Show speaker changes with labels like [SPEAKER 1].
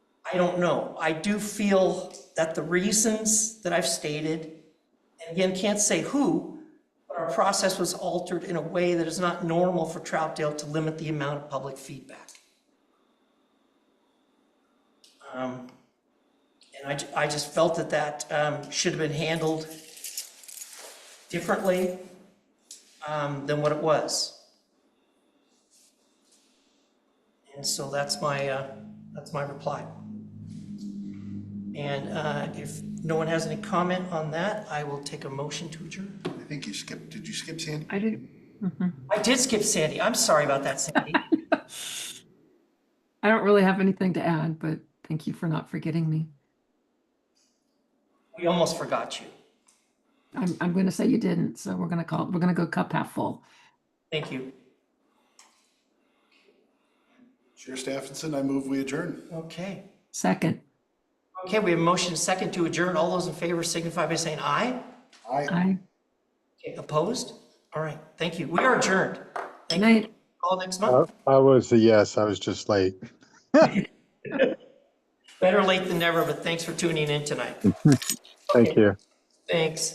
[SPEAKER 1] I don't know. I do feel that the reasons that I've stated, and again, can't say who, but our process was altered in a way that is not normal for Troutdale to limit the amount of public feedback. Um, And I, ju- I just felt that that um, should have been handled differently um, than what it was. And so that's my, uh, that's my reply. And uh, if no one has any comment on that, I will take a motion to adjourn.
[SPEAKER 2] I think you skipped, did you skip Sandy?
[SPEAKER 3] I didn't,
[SPEAKER 1] I did skip Sandy. I'm sorry about that, Sandy.
[SPEAKER 3] I don't really have anything to add, but thank you for not forgetting me.
[SPEAKER 1] We almost forgot you.
[SPEAKER 3] I'm, I'm going to say you didn't, so we're going to call, we're going to go cup half full.
[SPEAKER 1] Thank you.
[SPEAKER 2] Chair Stephenson, I move we adjourn.
[SPEAKER 1] Okay.
[SPEAKER 3] Second,
[SPEAKER 1] Okay, we have a motion second to adjourn. All those in favor signify by saying aye.
[SPEAKER 2] Aye.
[SPEAKER 3] aye.
[SPEAKER 1] Okay, Opposed? All right, thank you. We are adjourned.
[SPEAKER 3] Good
[SPEAKER 1] Thank you.
[SPEAKER 3] night.
[SPEAKER 1] Call next
[SPEAKER 4] I
[SPEAKER 1] month.
[SPEAKER 4] I was a yes, I was just late.
[SPEAKER 1] Better late than never, but thanks for tuning in tonight.
[SPEAKER 4] Thank
[SPEAKER 1] Okay,
[SPEAKER 4] you.
[SPEAKER 1] Thanks.